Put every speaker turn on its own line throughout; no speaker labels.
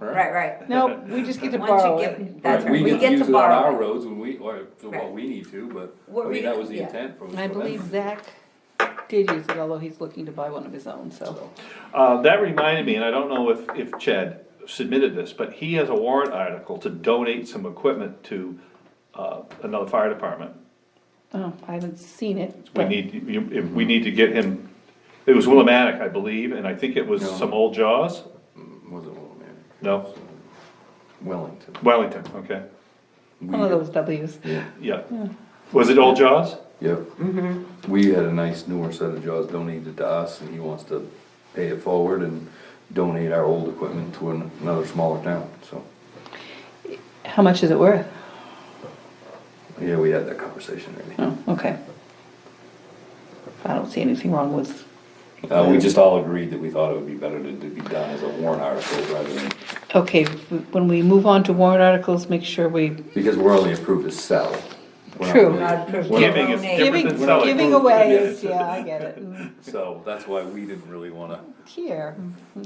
Right, right.
No, we just get to
Once
borrow
you
it.
give, that's
Right,
right, we
can
get
use
to
it on Our
borrow.
roads when we, or, for
Right.
what we need to, but,
What
I mean,
we-
that was the
yeah.
intent from.
I
from
believe
them.
Zach did use it, although he's looking to buy one of his own, so.
Uh, that reminded me, and I don't know if, if Chad submitted this, but he has a warrant article to donate some equipment to, uh, another fire department.
Oh, I haven't seen it.
We
but-
need, you- if, we need to get him, it was Willimantic, I believe, and I think it was
No.
some old Jaws?
Was it Wilmington?
No,
Wellington.
Wellington, okay,
One of those Ws.
yeah. Was it old Jaws?
Yep.
Mm-hmm.
We had a nice newer set of jaws donated to us and he wants to pay it forward and donate our old equipment to an- another smaller town, so.
How much is it worth?
Yeah, we had that conversation already.
Oh, okay. I don't see anything wrong with,
Uh, we just all agreed that we thought it would be better to, to be done as a warrant article rather than,
okay, w- when we move on to warrant articles, make sure we,
because we're only approved to sell. We're not
True.
really-
Not approved.
we're not-
Giving is
Donate.
different
giving,
than selling.
giving away is, yeah, I get it. Mm,
So that's why we didn't really wanna,
Here,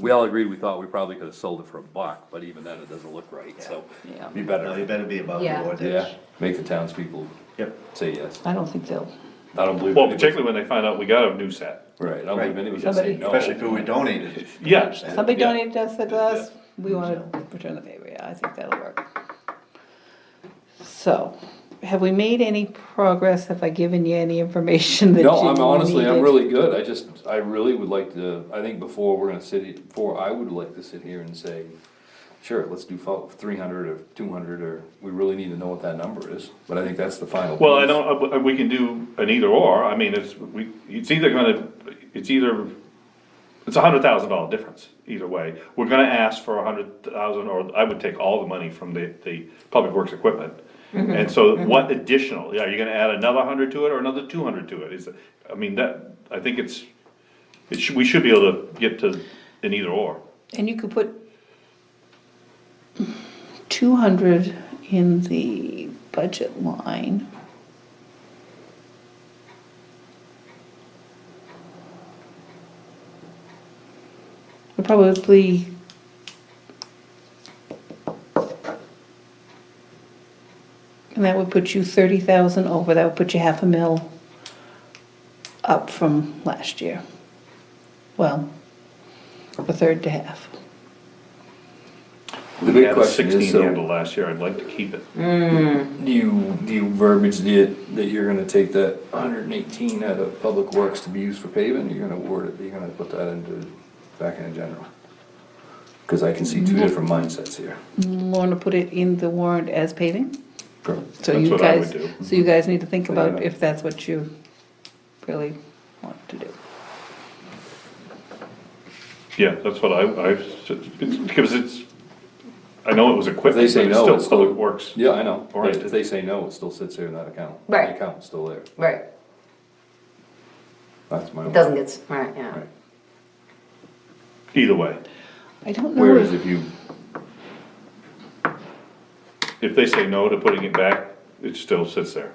we all agreed, we thought we probably could've sold it for a buck, but even then it doesn't look right, so.
Yeah.
Be
No, you
better,
better be above
Yeah.
board.
yeah, make the townspeople
Yep.
say yes.
I don't think they'll,
I don't believe.
Well,
anybody-
particularly when they find out we got a new set.
Right, I don't believe
Right.
anybody's gonna say
Somebody-
no.
Especially if we donated.
Yeah.
somebody
yeah.
donated us that last, we wanna return the favor, yeah, I think that'll work. So, have we made any progress? Have I given you any information that you
No, I'm honestly, I'm
needed?
really good, I just, I really would like to, I think before we're gonna sit, he- before I would like to sit here and say, sure, let's do three hundred or two hundred, or, we really need to know what that number is, but I think that's the final.
Well, I
piece.
don't, uh, we can do an either or, I mean, it's, we, it's either gonna, it's either, it's a hundred thousand dollar difference, either way. We're gonna ask for a hundred thousand, or I would take all the money from the, the public works equipment. And so what additional, yeah, are you gonna add another hundred to it or another two hundred to it? Is, I mean, that, I think it's, it should, we should be able to get to an either or.
And you could put two hundred in the budget line. We're Probably. And that would put you thirty thousand over, that would put you half a mil up from last year. Well, a third to half.
The
We
big
had a
question is,
sixteen handle
so,
last year, I'd like to keep it.
do you, do you verbiage that, that you're gonna take that hundred and eighteen out of public works to be used for paving, you're gonna word it, you're gonna put that into, back into general? Cause I can see
Mm-hmm.
two different mindsets here.
Want to put it in the warrant as paving? So
That's
you
what I would
guys,
do.
so you guys need to think
Think
about
about it.
if that's what you really want to do.
Yeah, that's what I, I, because it's, I know it was equipment,
They
but it's
say no,
still
it's still-
public works.
Yeah, I know,
Or-
if they say no, it still sits there in that account.
Right.
The account's still there,
Right,
that's my.
it doesn't get, s- right, yeah.
Right.
Either way,
I don't know.
Whereas
Mm-hmm.
if-
if you,
if they say no to putting it back, it still sits there.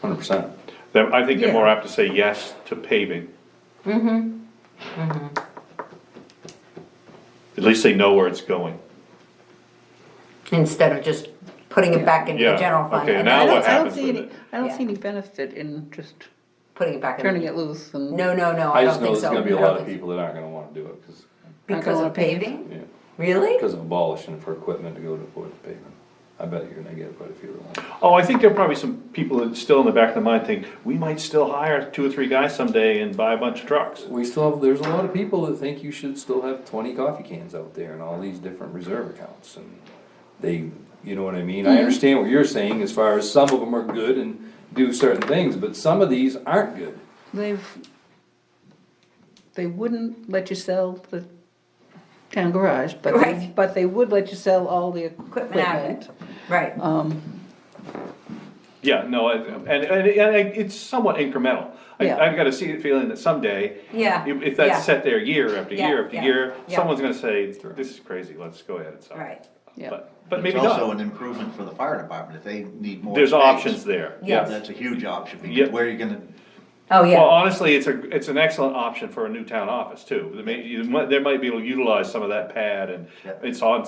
hundred percent,
Then I think they're more
Yeah.
apt to say yes to paving. Mm-hmm. At least they know where it's going.
Instead of just putting it back into the
Yeah,
general fund
okay,
and
now
then
I don't,
what
I don't
happens
see
with
any,
it?
I don't
Yeah.
see any benefit in just
putting it back in.
turning it loose and.
No, no, no, I
I just
don't
know there's
think so.
gonna be a
I don't
lot of
think
people that aren't gonna wanna do it, cause,
so.
Not
Because
gonna
of
pave.
paving?
yeah,
Really?
cause of abolishing for equipment to go to for the pavement. I bet you're gonna get quite a few of them.
Oh, I think there are probably some people that still in the back of their mind think, we might still hire two or three guys someday and buy a bunch of trucks.
We still have, there's a lot of people that think you should still have twenty coffee cans out there and all these different reserve accounts and they, you know what I mean? I understand what you're saying as far as some of them are good and do certain things, but some of these aren't good.
They've, they wouldn't let you sell the town garage, but they,
Right.
but they would let you sell all the
Equipment out of
equipment. Um,
it, right.
Yeah, no, I- and, and, and I- it's somewhat incremental. I,
Yeah.
I've got a se- feeling that someday.
Yeah,
If, if
yeah.
that's set there year after
Yeah,
year after
yeah,
year,
yeah.
someone's gonna say, this is crazy, let's go ahead and sell. it."
Right.
Yeah.
But, but
It's
maybe
also
not.
an improvement for the fire department if they need more.
There's
space.
options there.
Yeah.
That's a huge option
Yeah.
because where are you gonna,
Oh,
Well,
yeah,
honestly, it's a, it's an excellent option for a new town office too. They may, you might, they might be able to utilize some of that pad and
Yeah.
it's on